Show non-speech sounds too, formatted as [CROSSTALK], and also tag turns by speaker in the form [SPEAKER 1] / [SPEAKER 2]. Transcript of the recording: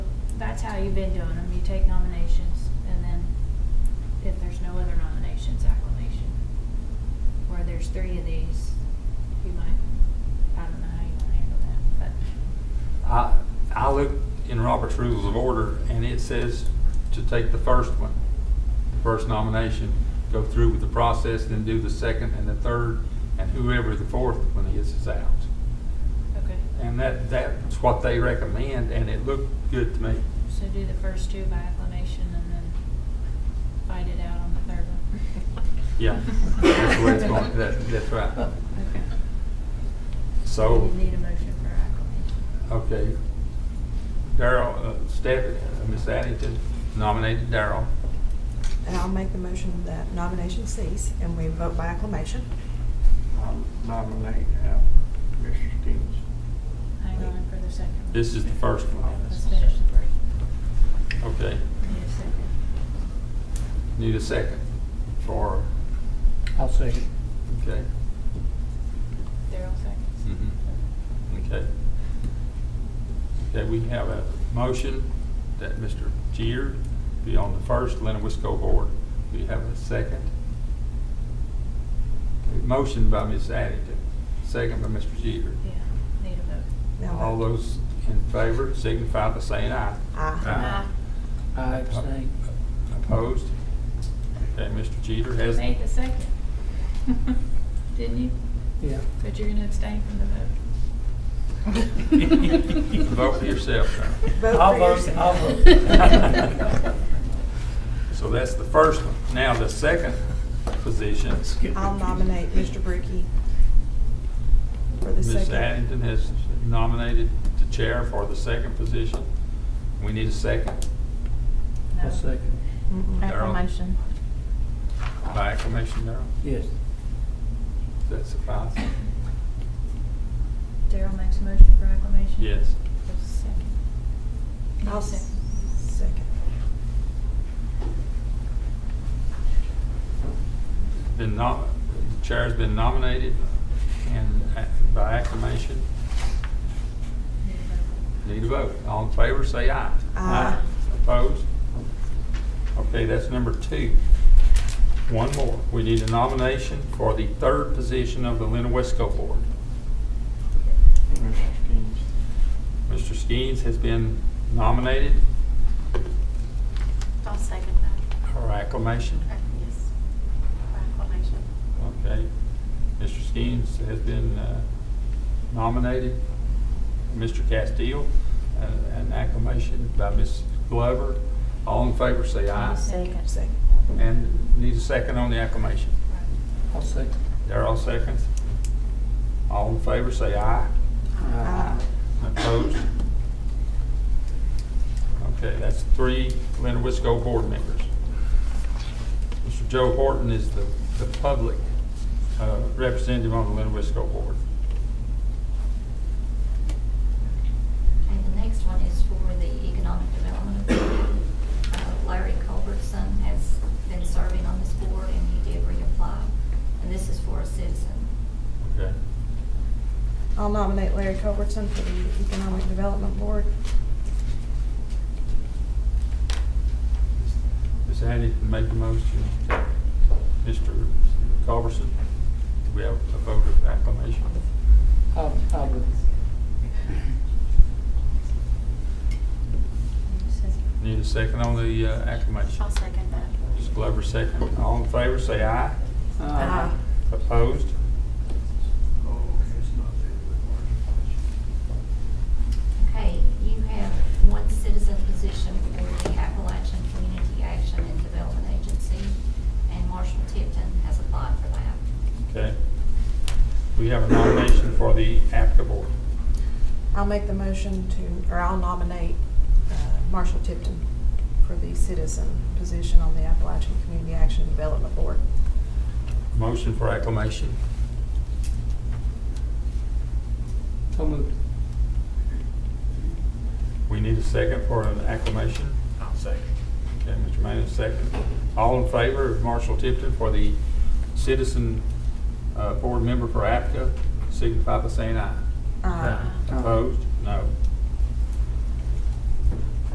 [SPEAKER 1] that's how you've been doing them. You take nominations and then if there's no other nominations, acclamation. Where there's three of these, you might, I don't know how you wanna handle that,
[SPEAKER 2] I, I looked in Robert's Rules of Order, and it says to take the first one, first nomination, go through with the process, then do the second and the third, and whoever the fourth one is, is out.
[SPEAKER 1] but, okay.
[SPEAKER 2] And that, that's what they recommend, and it looked good to me.
[SPEAKER 1] So do the first two by acclamation and then fight it out on the third one.
[SPEAKER 2] [LAUGHS] Yeah, that's the way it's
[SPEAKER 1] [LAUGHS]
[SPEAKER 2] going, that, that's right.
[SPEAKER 1] Okay.
[SPEAKER 2] So.
[SPEAKER 1] You need a motion for acclamation.
[SPEAKER 2] Okay. Daryl, uh, Steph, uh, Miss Addington nominated Daryl.
[SPEAKER 3] And I'll make the motion that nomination cease and we vote by acclamation.
[SPEAKER 4] I'll nominate uh, Mr. Stevens.
[SPEAKER 1] Hang on for the second one.
[SPEAKER 2] This is the first
[SPEAKER 1] Let's
[SPEAKER 2] one.
[SPEAKER 1] finish the first.
[SPEAKER 2] Okay.
[SPEAKER 1] Need a second.
[SPEAKER 2] Need a second for,
[SPEAKER 5] I'll second.
[SPEAKER 2] okay.
[SPEAKER 1] Daryl seconds.
[SPEAKER 2] Mhm. Okay. Okay, we have a motion that Mr. Jeter be on the first Lennoisco board. We have a second. A Motion by Miss Addington, second by Mr. Jeter.
[SPEAKER 1] Yeah, need a vote.
[SPEAKER 3] Now
[SPEAKER 2] All
[SPEAKER 3] vote.
[SPEAKER 2] those in favor signify by saying aye.
[SPEAKER 3] Aye.
[SPEAKER 1] Ah,
[SPEAKER 2] Aye.
[SPEAKER 5] I abstain.
[SPEAKER 2] Opposed? Okay, Mr. Jeter
[SPEAKER 1] You
[SPEAKER 2] has,
[SPEAKER 1] made the second. [LAUGHS] Didn't you?
[SPEAKER 5] Yeah.
[SPEAKER 1] But you're gonna abstain from the vote.
[SPEAKER 2] [LAUGHS] vote for yourself now.
[SPEAKER 3] Vote
[SPEAKER 5] I'll
[SPEAKER 3] for
[SPEAKER 5] vote,
[SPEAKER 3] yourself.
[SPEAKER 5] I'll vote.
[SPEAKER 2] So that's the first one. Now, the second position,
[SPEAKER 3] I'll nominate Mr. Bricky for the
[SPEAKER 2] Ms.
[SPEAKER 3] second.
[SPEAKER 2] Addington has nominated the chair for the second position. We need a second
[SPEAKER 1] No.
[SPEAKER 5] I'll second.
[SPEAKER 3] Mm-mm.
[SPEAKER 2] Aye.
[SPEAKER 6] Acclamation.
[SPEAKER 2] by acclamation, Darrell.
[SPEAKER 5] Yes.
[SPEAKER 2] Does that suffice?
[SPEAKER 1] Daryl makes a motion for acclamation?
[SPEAKER 2] Yes.
[SPEAKER 1] There's a second. Need a
[SPEAKER 3] I'll
[SPEAKER 1] second.
[SPEAKER 3] s- second.
[SPEAKER 2] Been nom, the chair's been nominated and a- by acclamation.
[SPEAKER 1] Need a vote.
[SPEAKER 2] Need a vote. All in favor, say aye.
[SPEAKER 3] Aye.
[SPEAKER 2] Opposed? Okay, that's number two. One more. We need a nomination for the third position of the Lena Wesco Board.
[SPEAKER 4] Mr. Stevens.
[SPEAKER 2] Mr. Skeens has been nominated
[SPEAKER 6] I'll second that.
[SPEAKER 2] for acclamation.
[SPEAKER 6] Uh, Yes. By acclamation.
[SPEAKER 2] Okay. Mr. Skeens has been uh, nominated. Mr. Castile, uh, an acclamation by Ms. Glover. All in favor, say aye.
[SPEAKER 1] Second.
[SPEAKER 3] Second.
[SPEAKER 2] And need a second on the acclamation.
[SPEAKER 5] I'll second.
[SPEAKER 2] Darrell seconds. All in favor, say aye.
[SPEAKER 3] Aye.
[SPEAKER 2] Opposed? Okay, that's three Leonard Wisco board members. Mr. Joe Horton is the, the public uh, representative on the Leonard Wisco board.
[SPEAKER 7] And the next one is for the Economic Development Authority. Uh, Larry Culbertson has been serving on this board and he did reapply. And this is for a citizen.
[SPEAKER 2] Okay.
[SPEAKER 3] I'll nominate Larry Culbertson for the Economic Development Board.
[SPEAKER 2] Ms. Addington made the motion. Mr. Culberson, do we have a vote of acclamation?
[SPEAKER 5] I'll, I'll vote.
[SPEAKER 1] Need a second.
[SPEAKER 2] Need a second on the uh, acclamation?
[SPEAKER 6] I'll second that.
[SPEAKER 2] Ms. Glover second. All in favor, say aye.
[SPEAKER 3] Aye.
[SPEAKER 2] Opposed?
[SPEAKER 7] Okay, you have one citizen position for the Appalachian Community Action and Development Agency, and Marshall Tipton has applied for that.
[SPEAKER 2] Okay. We have a nomination for the APCA board.
[SPEAKER 3] I'll make the motion to, or I'll nominate uh, Marshall Tipton for the citizen position on the Appalachian Community Action Development Board.
[SPEAKER 2] Motion for acclamation.
[SPEAKER 5] So moved.
[SPEAKER 2] We need a second for an acclamation.
[SPEAKER 4] I'll second.
[SPEAKER 2] Okay, Mr. Manning, second. All in favor of Marshall Tipton for the citizen uh, board member for APCA, signify by saying aye.
[SPEAKER 3] Aye.
[SPEAKER 2] Opposed? No.